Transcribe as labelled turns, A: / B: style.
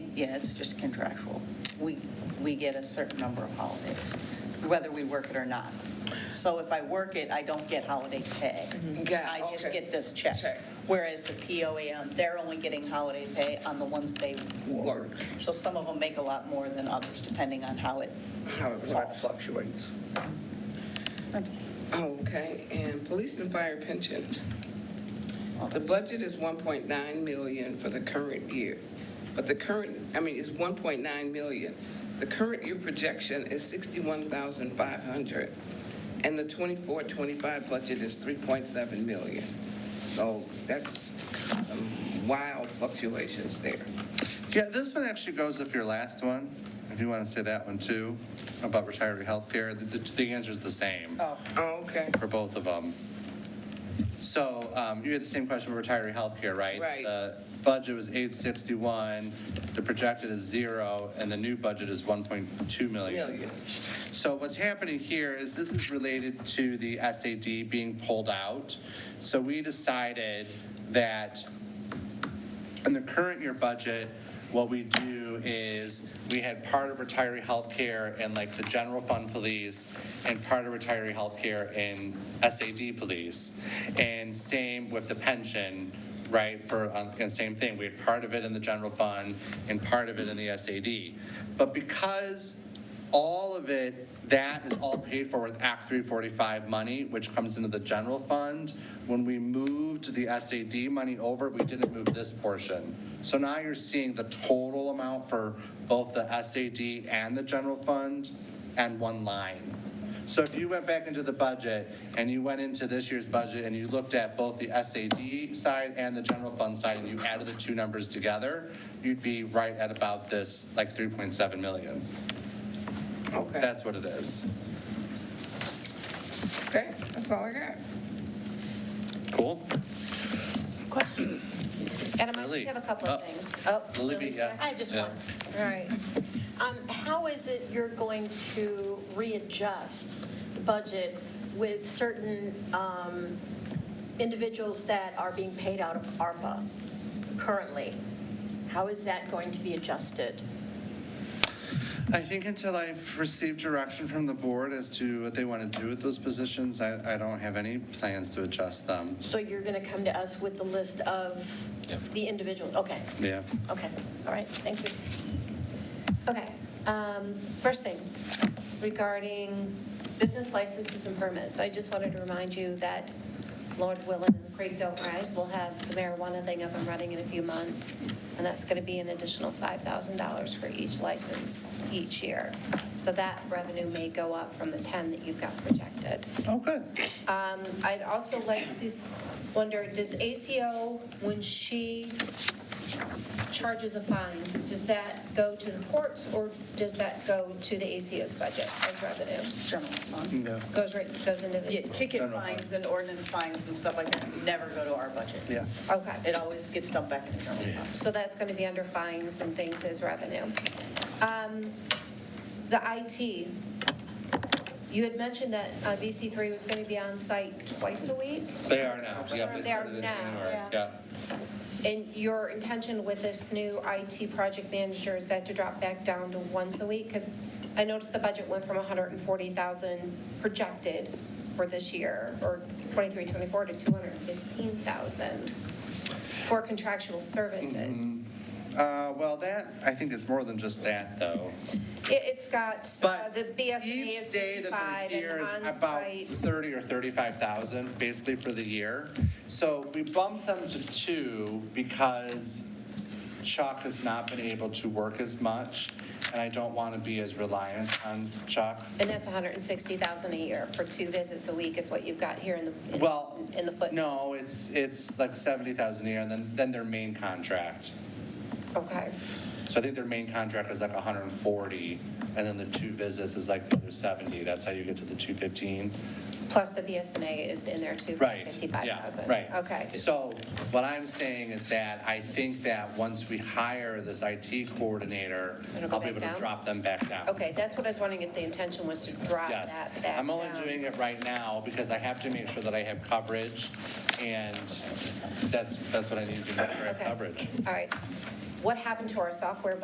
A: Yeah, it's just contractual. We, we get a certain number of holidays, whether we work it or not. So if I work it, I don't get holiday pay.
B: Got-
A: I just
B: Mm-hmm. okay.
A: get this check.
B: Check.
A: Whereas the POAM, they're only getting holiday pay on the ones they work.
B: Work.
A: So some of them make a lot more than others, depending on how it
B: How it
A: falls.
B: fluctuates. Okay, and police and fire pension. The budget is 1.9 million for the current year, but the current, I mean, it's 1.9 million. The current year projection is 61,500, and the 24, 25 budget is 3.7 million. So that's some wild fluctuations there.
C: Yeah, this one actually goes with your last one, if you want to say that one too, about retiree health care. The, the answer's the same
A: Oh,
B: Okay.
C: for both of them. So um, you had the same question for retiree health care, right?
B: Right.
C: The budget was 861, the projected is zero, and the new budget is 1.2 million.
B: Million.
C: So what's happening here is this is related to the SAD being pulled out. So we decided that in the current year budget, what we do is, we had part of retiree healthcare and like the general fund police, and part of retiree healthcare in SAD police. And same with the pension, right, for, um, and same thing, we had part of it in the general fund and part of it in the SAD. But because all of it, that is all paid for with Act 345 money, which comes into the general fund. When we moved the SAD money over, we didn't move this portion. So now you're seeing the total amount for both the SAD and the general fund and one line. So if you went back into the budget and you went into this year's budget and you looked at both the SAD side and the general fund side and you added the two numbers together, you'd be right at about this, like 3.7 million.
B: Okay,
C: That's what it is.
B: okay, that's all I got.
C: Cool.
D: Question.
E: Adam, I
C: Lily.
E: have a couple of
C: Oh.
E: things. Oh,
C: Lily,
E: Lily's
C: yeah.
E: back.
D: I just
C: Yeah.
D: want,
E: All right.
D: um, how is it you're going to readjust the budget with certain um, individuals that are being paid out of ARPA currently? How is that going to be adjusted?
C: I think until I've received direction from the board as to what they want to do with those positions, I, I don't have any plans to adjust them.
D: So you're going to come to us with the list of
C: Yep.
D: the individuals? Okay,
C: Yeah.
D: okay, all right, thank you.
E: Okay. Um, First thing, regarding business licenses and permits, I just wanted to remind you that Lord Willen and Creek Don't Rise will have the marijuana thing up and running in a few months, and that's going to be an additional $5,000 for each license each year. So that revenue may go up from the 10 that you've got projected.
C: Oh, good.
E: Um, I'd also like to s- wonder, does ACO, when she charges a fine, does that go to the courts or does that go to the ACO's budget as revenue?
A: General fund.
C: Yeah.
E: Goes right, goes into
A: Yeah,
E: the,
A: ticket
C: General fund.
A: fines and ordinance fines and stuff like that never go to our budget.
C: Yeah.
E: okay.
A: It always gets dumped back in the general fund.
E: So that's going to be under fines and things as revenue. Um, The IT, you had mentioned that uh, BC3 was going to be on site twice a week?
C: They are now. Yeah,
E: They are
C: started in
E: now,
C: January.
D: yeah.
C: Yeah.
E: And your intention with this new IT project manager is that to drop back down to once a week? Because I noticed the budget went from 140,000 projected for this year, or 23, 24, to 215,000 for contractual services.
C: Uh, well, that, I think is more than just that, though.
E: It- It's got, uh,
C: But
E: the BSNA is
C: Each day that
E: 55
C: they're here is
E: and
C: about
E: on-site.
C: 30 or 35,000, basically for the year. So we bumped them to two because Chuck has not been able to work as much, and I don't want to be as reliant on Chuck.
E: And that's 160,000 a year for two visits a week is what you've got here in the, in-
C: Well,
E: in the footnote.
C: no, it's, it's like 70,000 a year, and then, then their main contract.
E: Okay.
C: So I think their main contract is like 140, and then the two visits is like the other 70. That's how you get to the 215.
E: Plus the BSNA is in there too, for
C: Right.
E: 55,000.
C: yeah, Right.
E: Okay.
C: So what I'm saying is that I think that once we hire this IT coordinator,
E: It'll go
C: I'll be
E: back
C: able to
E: down?
C: drop them back down.
E: Okay, that's what I was wondering, if the intention was to drop that
C: Yes.
E: back down.
C: I'm only doing it right now because I have to make sure that I have coverage, and that's, that's what I need to do, I have
E: Okay.
C: coverage.
E: All right. What happened to our software